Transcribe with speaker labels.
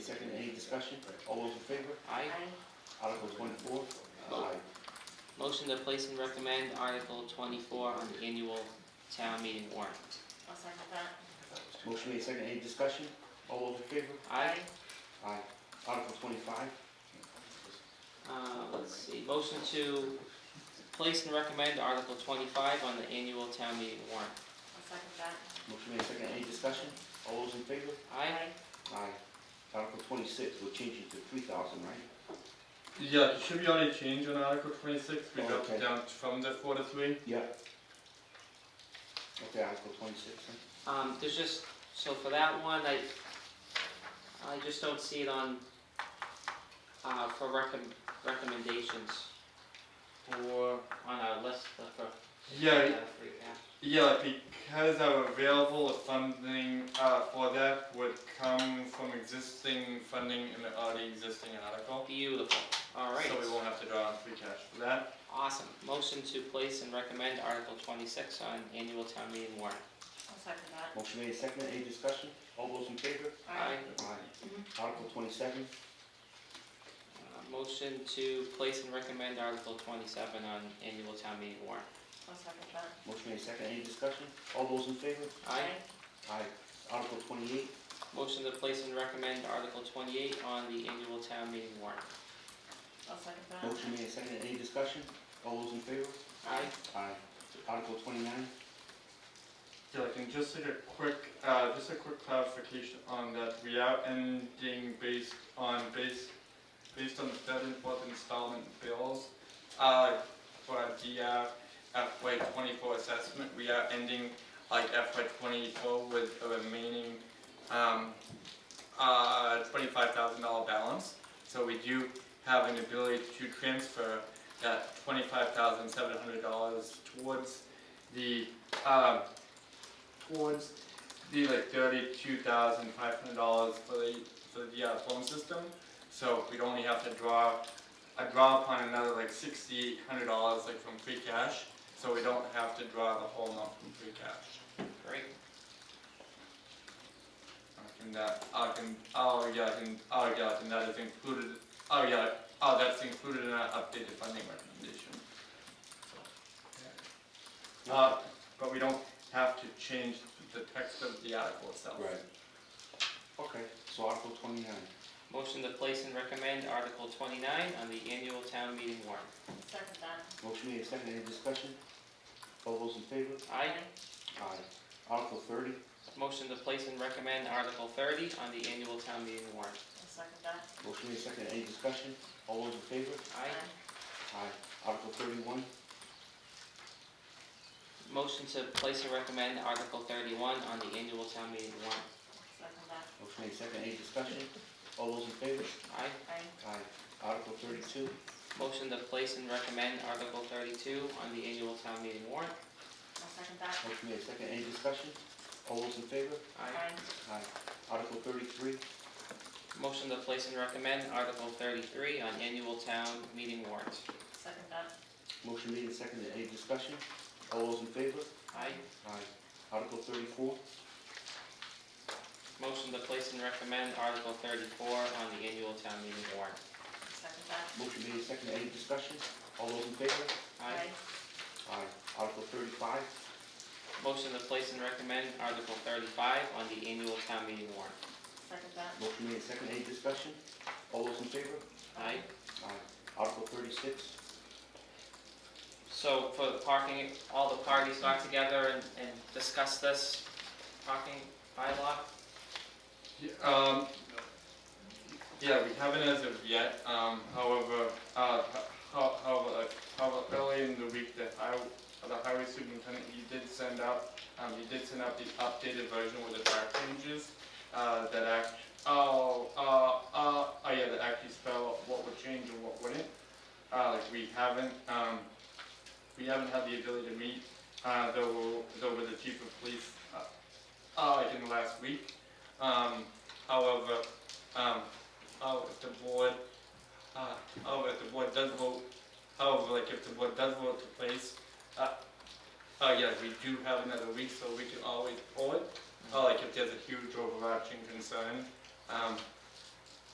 Speaker 1: discussion? All those in favor?
Speaker 2: Aye.
Speaker 1: Article twenty-four? Aye.
Speaker 2: Motion to place and recommend Article 24 on the annual town meeting warrant.
Speaker 3: I'll second that.
Speaker 1: Motion made, second, any discussion? All those in favor?
Speaker 2: Aye.
Speaker 1: Aye. Article twenty-five?
Speaker 2: Uh, Let's see, motion to place and recommend Article 25 on the annual town meeting warrant.
Speaker 3: I'll second that.
Speaker 1: Motion made, second, any discussion? All those in favor?
Speaker 2: Aye.
Speaker 1: Aye. Article twenty-six, we're changing to three thousand, right?
Speaker 4: Yeah, it should be only change on Article 26. We dropped
Speaker 1: Okay.
Speaker 4: it down from the 43.
Speaker 1: Yeah. Okay, Article twenty-six, then.
Speaker 2: Um, there's just, so for that one, I, I just don't see it on, uh, for recom, recommendations. Or on our list of, for, uh,
Speaker 4: Yeah,
Speaker 2: free cash.
Speaker 4: yeah, because our available funding uh, for that would come from existing funding in the already existing article.
Speaker 2: Beautiful, alright,
Speaker 4: So we won't have to draw on free cash for that.
Speaker 2: awesome. Motion to place and recommend Article twenty-six on annual town meeting warrant.
Speaker 3: I'll second that.
Speaker 1: Motion made, second, any discussion? All those in favor?
Speaker 2: Aye.
Speaker 1: Aye. Article twenty-seven?
Speaker 2: Uh, Motion to place and recommend Article twenty-seven on annual town meeting warrant.
Speaker 3: I'll second that.
Speaker 1: Motion made, second, any discussion? All those in favor?
Speaker 2: Aye.
Speaker 1: Aye. Article twenty-eight?
Speaker 2: Motion to place and recommend Article twenty-eight on the annual town meeting warrant.
Speaker 3: I'll second that.
Speaker 1: Motion made, second, any discussion? All those in favor?
Speaker 2: Aye.
Speaker 1: Aye. Article twenty-nine?
Speaker 4: Yeah, like, and just like a quick, uh, just a quick clarification on that. We are ending based on base, based on the third and fourth installment bills. Uh, for our DR FY twenty-four assessment, we are ending like FY twenty-four with a remaining, um, uh, twenty-five thousand dollar balance. So we do have an ability to transfer that twenty-five thousand seven hundred dollars towards the, um, towards the like thirty-two thousand five hundred dollars for the for the uh, phone system. So we'd only have to draw a draw upon another like sixty-eight hundred dollars like from free cash. So we don't have to draw the whole amount from free cash.
Speaker 2: Great.
Speaker 4: I can that I can oh yeah I can oh yeah and that is included oh yeah oh that's included in our updated funding recommendation. So, yeah. Uh, but we don't have to change the text of the article itself.
Speaker 1: Right. Okay, so Article twenty-nine.
Speaker 2: Motion to place and recommend Article twenty-nine on the annual town meeting warrant.
Speaker 3: I'll second that.
Speaker 1: Motion made, second, any discussion? All those in favor?
Speaker 2: Aye.
Speaker 1: Aye. Article thirty?
Speaker 2: Motion to place and recommend Article thirty on the annual town meeting warrant.
Speaker 3: I'll second that.
Speaker 1: Motion made, second, any discussion? All those in favor?
Speaker 2: Aye.
Speaker 1: Aye. Article thirty-one?
Speaker 2: Motion to place and recommend Article thirty-one on the annual town meeting warrant.
Speaker 3: Second that.
Speaker 1: Motion made, second, any discussion? All those in favor?
Speaker 2: Aye.
Speaker 3: Aye.
Speaker 1: Aye. Article thirty-two?
Speaker 2: Motion to place and recommend Article thirty-two on the annual town meeting warrant.
Speaker 3: I'll second that.
Speaker 1: Motion made, second, any discussion? All those in favor?
Speaker 2: Aye.
Speaker 3: Aye.
Speaker 1: Aye. Article thirty-three?
Speaker 2: Motion to place and recommend Article thirty-three on annual town meeting warrant.
Speaker 3: Second that.
Speaker 1: Motion made and seconded, any discussion? All those in favor?
Speaker 2: Aye.
Speaker 1: Aye. Article thirty-four,
Speaker 2: Motion to place and recommend Article thirty-four on the annual town meeting warrant.
Speaker 3: Second that.
Speaker 1: motion made and seconded, any discussion? All those in favor?
Speaker 2: Aye.
Speaker 1: Aye. Article thirty-five,
Speaker 2: Motion to place and recommend Article thirty-five on the annual town meeting warrant.
Speaker 3: Second that.
Speaker 1: motion made and seconded, any discussion? All those in favor?
Speaker 2: Aye.
Speaker 1: Aye. Article thirty-six,
Speaker 2: So for the parking, all the parties got together and, and discussed this parking bylaw?
Speaker 4: Yeah, um, yeah, we haven't as of yet, um, however, uh, how, how, how early in the week that I, the highway superintendent, he did send out, um, he did send out the updated version with the track changes, uh, that act, oh, uh, uh, oh yeah, that actually spell what would change and what wouldn't. Uh, like, we haven't, um, we haven't had the ability to meet, uh, though, though with the chief of police, uh, uh, like in the last week. Um, however, um, oh, if the board, uh, oh, if the board does vote, however, like if the board does vote to place, uh, oh yeah, we do have another week, so we can always pull it. Oh, like if there's a huge overarching concern, um,